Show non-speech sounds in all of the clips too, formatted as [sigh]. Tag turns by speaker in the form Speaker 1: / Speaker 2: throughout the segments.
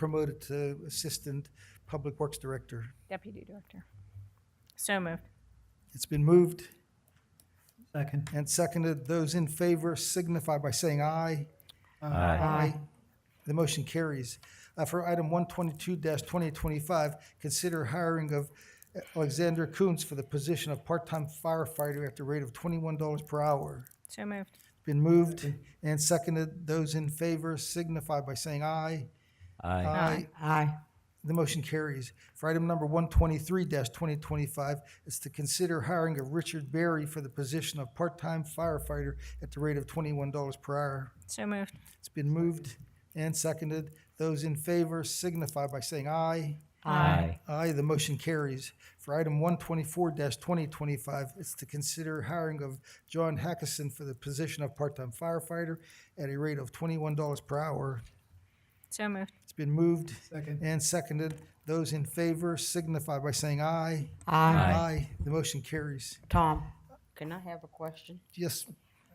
Speaker 1: promoted to Assistant Public Works Director.
Speaker 2: Deputy Director. So moved.
Speaker 1: It's been moved
Speaker 3: Second.
Speaker 1: and seconded. Those in favor signify by saying aye.
Speaker 3: Aye.
Speaker 1: The motion carries. Uh, For item 122-2025, consider hiring of Alexander Coons for the position of part-time firefighter at the rate of $21 per hour.
Speaker 2: So moved.
Speaker 1: Been moved and seconded. Those in favor signify by saying aye.
Speaker 4: Aye.
Speaker 3: Aye.
Speaker 1: The motion carries. For item number one twenty-three twenty twenty-five, is to consider hiring of Richard Berry for the position of part-time firefighter at the rate of twenty-one dollars per hour.
Speaker 2: So moved.
Speaker 1: It's been moved and seconded. Those in favor signify by saying aye.
Speaker 4: Aye.
Speaker 1: Aye, the motion carries. For item one twenty-four twenty twenty-five, it's to consider hiring of John Hackison for the position of part-time firefighter at a rate of twenty-one dollars per hour.
Speaker 2: So moved.
Speaker 1: It's been moved
Speaker 3: Second.
Speaker 1: and seconded. Those in favor signify by saying aye.
Speaker 3: Aye.
Speaker 1: Aye. The motion carries.
Speaker 3: Tom.
Speaker 5: Can I have a question?
Speaker 1: Yes,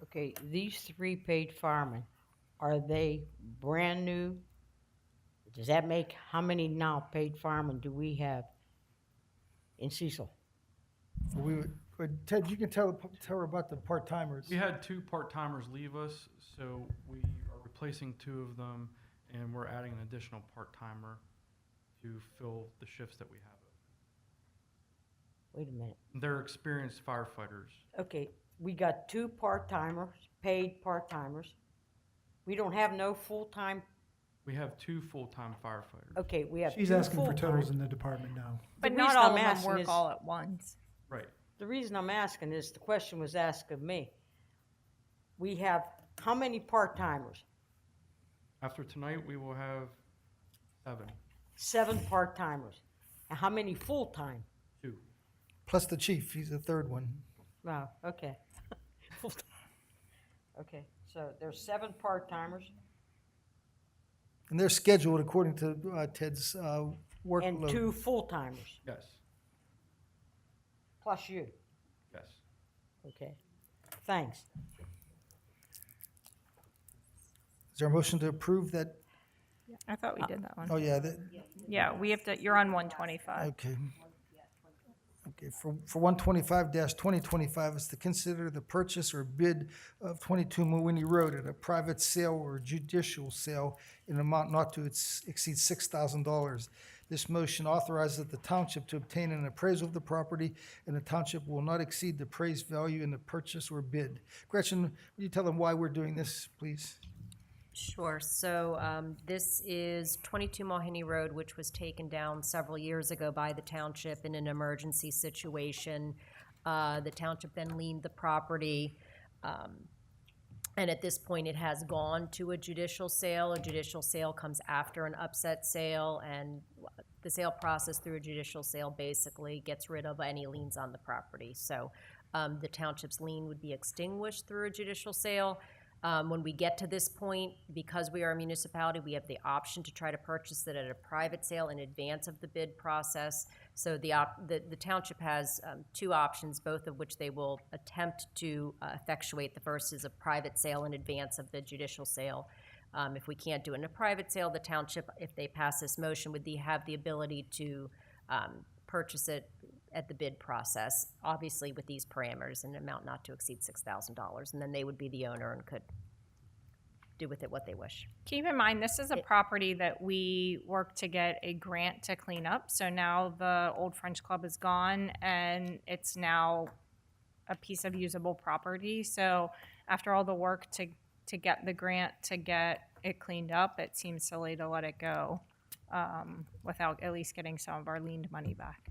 Speaker 5: Okay, these three paid firemen, are they brand new? Does that make, how many now paid firemen do we have in Cecil?
Speaker 1: we, would- but Ted, you can tell, tell her about the part-timers.
Speaker 6: We had two part-timers leave us, so we are replacing two of them, and we're adding an additional part-timer to fill the shifts that we have.
Speaker 5: Wait a minute.
Speaker 6: They're experienced firefighters.
Speaker 5: Okay, we got two part-timers, paid part-timers. We don't have no full-time,
Speaker 6: We have two full-time firefighters.
Speaker 5: okay, we have two
Speaker 3: She's asking for
Speaker 5: full-time.
Speaker 3: totals in the department now.
Speaker 2: But
Speaker 5: The
Speaker 2: not
Speaker 5: reason
Speaker 2: all
Speaker 5: I'm
Speaker 2: of them
Speaker 5: asking
Speaker 2: work
Speaker 5: is-
Speaker 2: all at once.
Speaker 6: Right.
Speaker 5: The reason I'm asking is the question was asked of me. We have how many part-timers?
Speaker 6: After tonight, we will have seven,
Speaker 5: Seven part-timers. And how many full-time?
Speaker 6: two.
Speaker 1: Plus the chief, he's the third one.
Speaker 5: Wow, [laughs] okay. Okay, so there's seven part-timers
Speaker 1: And they're scheduled according to uh, Ted's uh,
Speaker 5: and
Speaker 1: workload.
Speaker 5: two full-timers,
Speaker 6: Yes,
Speaker 5: plus you.
Speaker 6: yes.
Speaker 5: Okay, thanks.
Speaker 1: Is there a motion to approve that?
Speaker 2: I thought we did that one.
Speaker 1: Oh, yeah, that,
Speaker 2: Yeah, we have to, you're on 125.
Speaker 1: okay. Okay, for, for one twenty-five twenty twenty-five, is to consider the purchase or bid of twenty-two Mooney Road at a private sale or judicial sale in an amount not to ex- exceed six thousand dollars. This motion authorizes the township to obtain an appraisal of the property, and the township will not exceed the appraised value in the purchase or bid. Gretchen, will you tell them why we're doing this, please?
Speaker 7: Sure. So um, this is 22 Mulhenny Road, which was taken down several years ago by the township in an emergency situation. Uh, The township then leaned the property. um, And at this point, it has gone to a judicial sale. A judicial sale comes after an upset sale, and the sale process through a judicial sale basically gets rid of any liens on the property. So um, the township's lien would be extinguished through a judicial sale. Um, When we get to this point, because we are a municipality, we have the option to try to purchase it at a private sale in advance of the bid process. So the, op- the the township has um, two options, both of which they will attempt to uh, effectuate. The first is a private sale in advance of the judicial sale. Um, If we can't do it in a private sale, the township, if they pass this motion, would the- have the ability to um, purchase it at the bid process, obviously with these parameters, an amount not to exceed $6,000. And then they would be the owner and could do with it what they wish.
Speaker 2: Keep in mind, this is a property that we worked to get a grant to clean up. So now the old French Club is gone and it's now a piece of usable property. So after all the work to, to get the grant, to get it cleaned up, it seems silly to let it go um, without at least getting some of our leaned money back.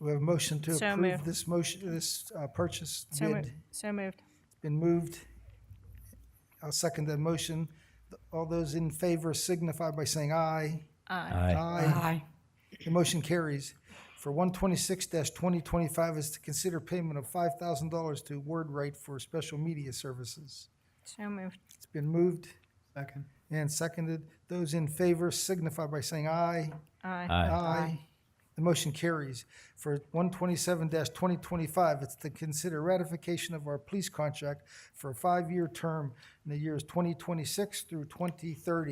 Speaker 1: We have a motion to
Speaker 2: So
Speaker 1: approve
Speaker 2: moved.
Speaker 1: this motion, this uh, purchase
Speaker 2: So, mo-
Speaker 1: bid.
Speaker 2: so moved.
Speaker 1: Been moved. I'll second that motion. All those in favor signify by saying aye.
Speaker 4: Aye.
Speaker 1: Aye. The motion carries. For one twenty-six twenty twenty-five is to consider payment of five thousand dollars to Word Right for special media services.
Speaker 2: So moved.
Speaker 1: It's been moved
Speaker 3: Second.
Speaker 2: Uh,
Speaker 1: and seconded. Those in favor signify by saying aye.
Speaker 2: Aye.
Speaker 4: Aye.
Speaker 1: Aye. The motion carries. For one twenty-seven twenty twenty-five, it's to consider ratification of our police contract for a five-year term in the years twenty twenty-six through twenty thirty.